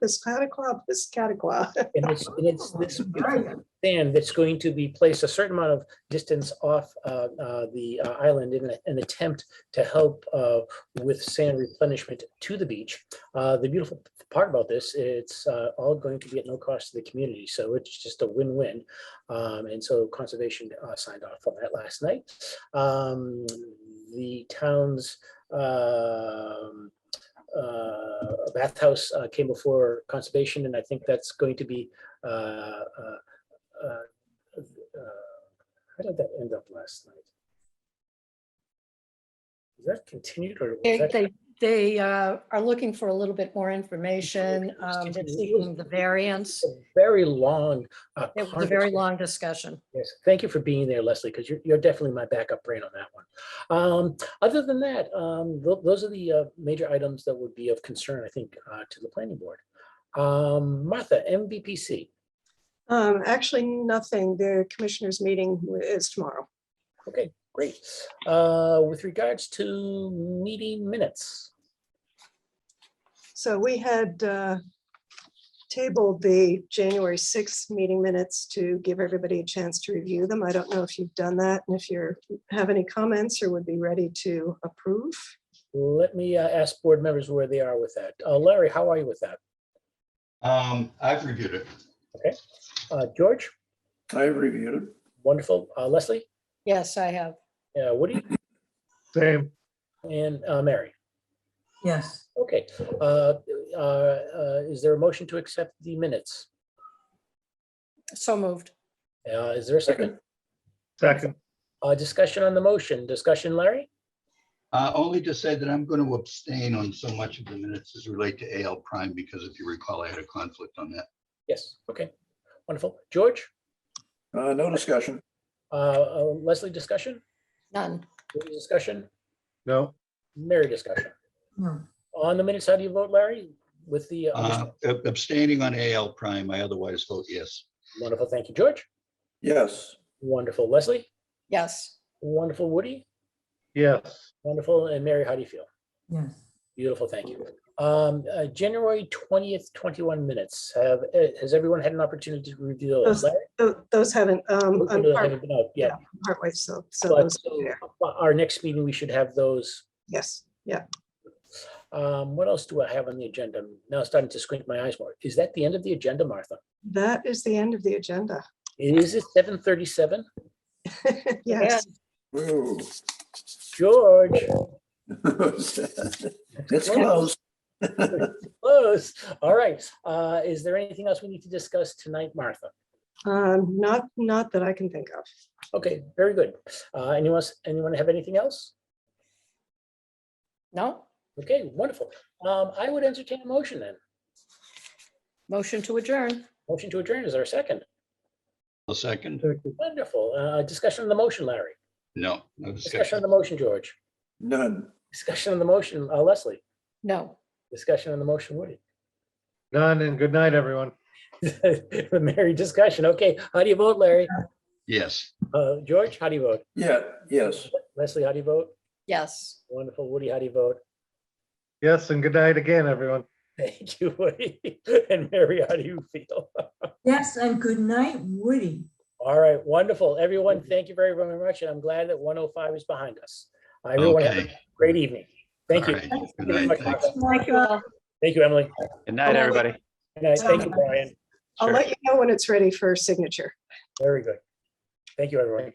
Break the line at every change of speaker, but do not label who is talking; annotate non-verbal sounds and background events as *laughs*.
this cataclaw, up this cataclaw.
And it's, and it's this sand that's going to be placed a certain amount of distance off uh, uh, the uh, island in a- an attempt to help uh, with sand replenishment to the beach. Uh, The beautiful part about this, it's uh, all going to be at no cost to the community, so it's just a win-win. Um, And so conservation uh, signed off on that last night. Um, The town's um, uh, bathhouse uh, came before conservation, and I think that's going to be uh, uh, uh, uh, how did that end up last night? Is that continued or? was
They,
that-
they- they uh, are looking for a little bit more information. um, They're seeking the variance.
a Very long. uh,
It was a very
conversation.
long discussion.
Yes, thank you for being there, Leslie, because you're, you're definitely my backup brain on that one. Um, other than that, um, tho- those are the, uh, major items that would be of concern, I think, uh, to the planning board. Um, Martha, MVPC.
*laughs* Um, actually, nothing. The commissioners' meeting is tomorrow.
Okay, great. Uh, with regards to meeting minutes.
So we had uh, tabled the January 6th meeting minutes to give everybody a chance to review them. I don't know if you've done that and if you have any comments or would be ready to approve.
Let me uh, ask board members where they are with that. Uh, Larry, how are you with that?
Um, I've reviewed it.
Uh, George,
I reviewed it.
wonderful. Uh, Leslie,
Yes, I have.
uh, Woody,
Same,
and uh, Mary.
Yes,
Okay, uh, uh, uh, is there a motion to accept the minutes?
So moved.
Uh, Is there a second?
second,
Uh, Discussion on the motion. Discussion, Larry?
Uh, only to say that I'm going to abstain on so much of the minutes as relate to AL prime because if you recall, I had a conflict on that.
Yes, okay, wonderful. George,
Uh, no discussion.
Uh, uh, Leslie, discussion?
None.
Woody, Discussion?
no,
Mary, discussion?
no,
On the minutes, how do you vote, Larry? With the, uh,
Uh, ab- abstaining on AL prime, I otherwise vote yes.
wonderful, thank you, George.
Yes,
Wonderful, Leslie?
Yes.
Wonderful, Woody?
yes,
Wonderful, and Mary, how do you feel?
yes,
Beautiful, thank you. Um, uh, January twentieth, twenty-one minutes. Have, uh, has everyone had an opportunity to review? those?
Those-
Larry?
Tho- Those haven't, um, I'm
Those
part-
haven't been out yet.
partway, so, so
But
those,
so,
yeah,
uh, Our next meeting, we should have those
yes, yeah.
Um, what else do I have on the agenda? Now I'm starting to squint my eyes more. Is that the end of the agenda, Martha?
That is the end of the agenda. *laughs*
Is it seven thirty-seven?
Yes,
Ooh.
George,
*laughs* It's close.
close. All right. Uh, is there anything else we need to discuss tonight, Martha?
um, not, not that I can think of.
Okay, very good. Uh, anyone, else- anyone have anything else?
No?
Okay, wonderful. Um, I would entertain a motion then.
Motion to adjourn.
Motion to adjourn is our second.
A second?
second,
Wonderful. Uh, discussion on the motion, Larry.
No,
Discussion
no
on
discussion.
the motion, George.
None.
Discussion on the motion, uh, Leslie.
No.
Discussion on the motion, Woody. *laughs*
none, and good night, everyone.
Mary discussion. Okay, how do you vote, Larry?
Yes.
Uh, George, how do you vote?
Yeah, yes.
Leslie, how do you vote?
Yes.
Wonderful. Woody, how do you vote? *laughs*
Yes, and good night again, everyone.
Thank you, Woody. *laughs* And Mary, how do you feel? *laughs*
yes, and good night, Woody.
All right, wonderful. Everyone, thank you very, very much, and I'm glad that 105 is behind us. Everyone, have a
Okay.
great evening. Thank you.
All right. Good
Thank you very
night.
much,
Thanks.
Martha.
Thank you all.
Thank you, Emily.
Good night,
Hello.
everybody.
Good night. Thank you, Brian.
I'll
Sure.
let you know when it's ready for signature.
Very good. Thank you, everyone.